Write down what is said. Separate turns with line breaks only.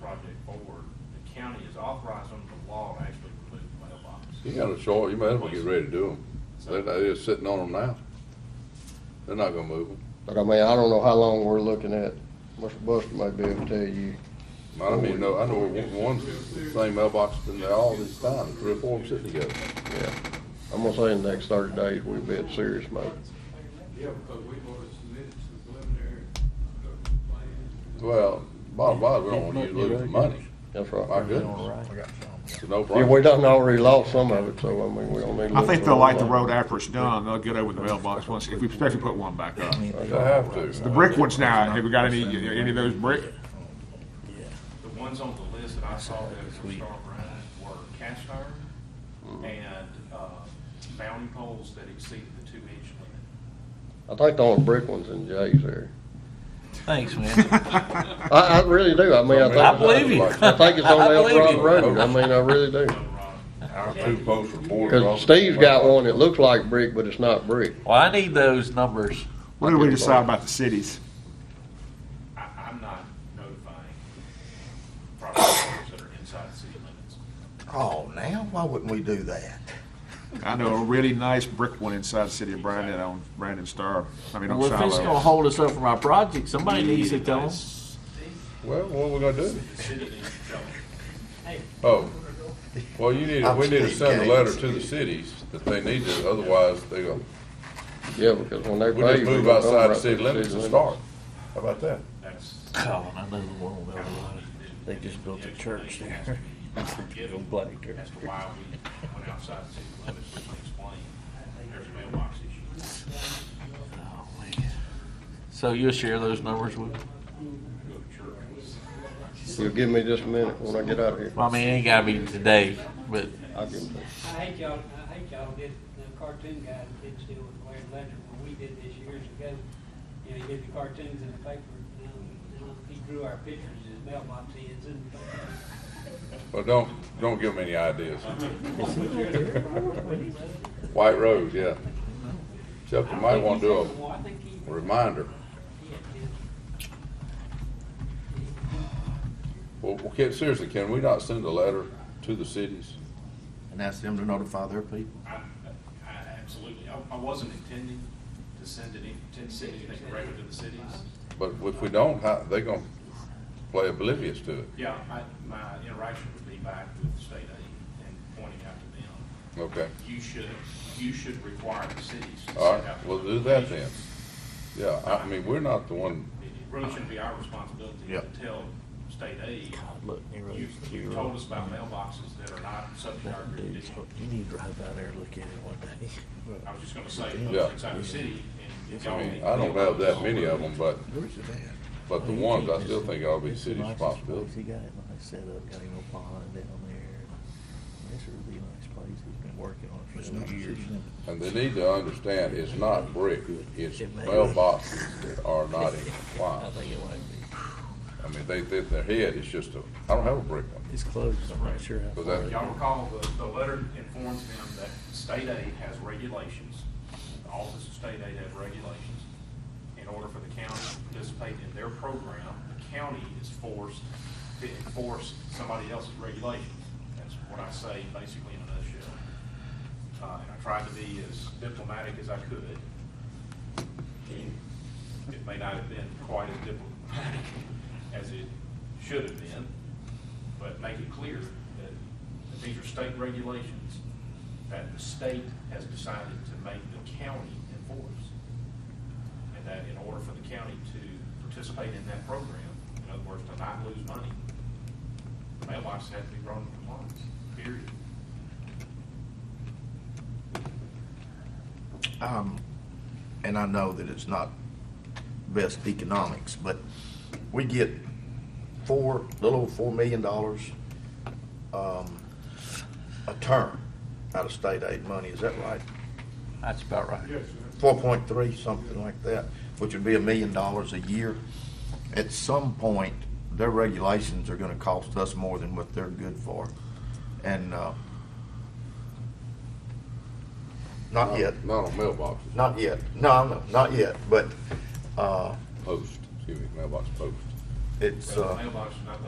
project forward, the county is authorized under the law to actually remove the mailbox.
You got a short, you might as well get ready to do them. They're, they're just sitting on them now. They're not gonna move them.
But I mean, I don't know how long we're looking at. Mr. Buster may be able to tell you.
I don't even know, I know one, one same mailbox been there all this time, three or four of them sitting together.
Yeah. I'm gonna say in the next thirty days, we'll be in serious mode.
Yeah, because we've already submitted some preliminary production plans.
Well, bottom line, we don't wanna you to lose the money.
That's
My
right.
goodness, it's a no
Yeah, we
brainer.
done already lost some of it, so I mean, we don't need. to
I
look
think
for
they'll light the
another
road
one.
after it's done, they'll get over the mailbox once, if we especially put one back up.
They have to.
The brick ones now, have we got any, any of those brick?
The ones on the list that I saw that were star brand were cast iron and, uh, bounty poles that exceeded the two inch limit.
I think the only brick ones in Jay's there.
Thanks, man.
I, I really do. I mean, I think.
I believe you.
I think it's on
I
El
believe
Dorado
you.
Road. I mean, I really do.
So, Rob,
Our two posts are boarded
Cause
off.
Steve's got one that looks like brick, but it's not brick.
Well, I need those numbers.
What do we decide about the cities?
I, I'm not notifying property owners that are inside the city limits.
Oh, now, why wouldn't we do that?
I know a really nice brick one inside the city of Brandon on Brandon Star, I mean, on
Well, if it's gonna
Shiloh.
hold us up from our project, somebody needs to tell us.
Well, what we gonna do?
The city needs to tell them.
Oh, well, you need, we need to send a letter to the cities that they need to, otherwise they go,
Yeah, because when they
we
pay.
just
you,
move
gonna
outside
come
the
right to
city
the
limits
city
and
limits.
start. How about that?
That's.
Colin, I know the one on Eldorado. They just built a church there. Go bloody church.
As to why we went outside the city limits, we can explain, there's a mailbox issue.
Oh, man. So you'll share those numbers with,
Go to church.
You'll give me just a minute when I get out of here.
well, I mean, it ain't gotta be today, but
I'll give it to you.
I hate y'all, I hate y'all did, the cartoon guy did steal with Blair Ledger, when we did this years ago. You know, he did the cartoons in the paper, you know, and he drew our pictures in his mailbox, he is in the paper.
Well, don't, don't give them any ideas. White Rose, yeah. Except you might wanna do
Well, I think he,
a reminder.
he had, you know,
Well, well, can, seriously, can we not send a letter to the cities?
And ask them to notify their people.
I, I absolutely, I, I wasn't intending to send any, to send anything directly to the cities.
But if we don't, how, they gonna play oblivious to it.
Yeah, I, my interaction would be back with state aid and pointing out to them,
Okay,
you should, you should require the cities to
all
send
right,
out.
we'll do that then. Yeah, I, I mean, we're not the one,
It it really shouldn't be our responsibility to
Yep.
tell state aid,
look, near
you,
those
you
two
told us
roads.
about mailboxes that are not subject to our
That dude's,
jurisdiction.
you need to drive out there and look at it one day.
I was just gonna say,
Yeah.
those inside the city and.
I mean, I don't have that many of them, but,
Where's it at?
but the ones, I still think ought to be city responsibility.
He got it nice set up, got him a pond down there. This would be a nice place, he's been working on it
It's
for
not
years.
used.
And they need to understand, it's not brick, it's mailboxes that are not in
I
compliance.
think it might
I mean, they, they, their head is just a, I don't have a brick one.
be, it's close, I'm not sure how
Was
far.
that-
it-
Y'all recall, the, the letter informs them that state aid has regulations, the Office of State Aid has regulations. In order for the county to participate in their program, the county is forced to enforce somebody else's regulations. That's what I say basically in a nutshell. Uh, and I tried to be as diplomatic as I could. It may not have been quite as diplomatic as it should have been, but make it clear that, that these are state regulations that the state has decided to make the county enforce. And that in order for the county to participate in that program, in other words, to not lose money, mailboxes have to be grown in compliance, period.
Um, and I know that it's not best economics, but we get four, little over four million dollars, um, a term out of state aid money, is that right?
That's about right.
Four point three, something like that, which would be a million dollars a year. At some point, their regulations are gonna cost us more than what they're good for, and, uh, not yet.
Not on mailboxes,
Not yet. No, no, not yet, but uh,
post, excuse me, mailbox post.
it's.
So
uh,
mailboxes are not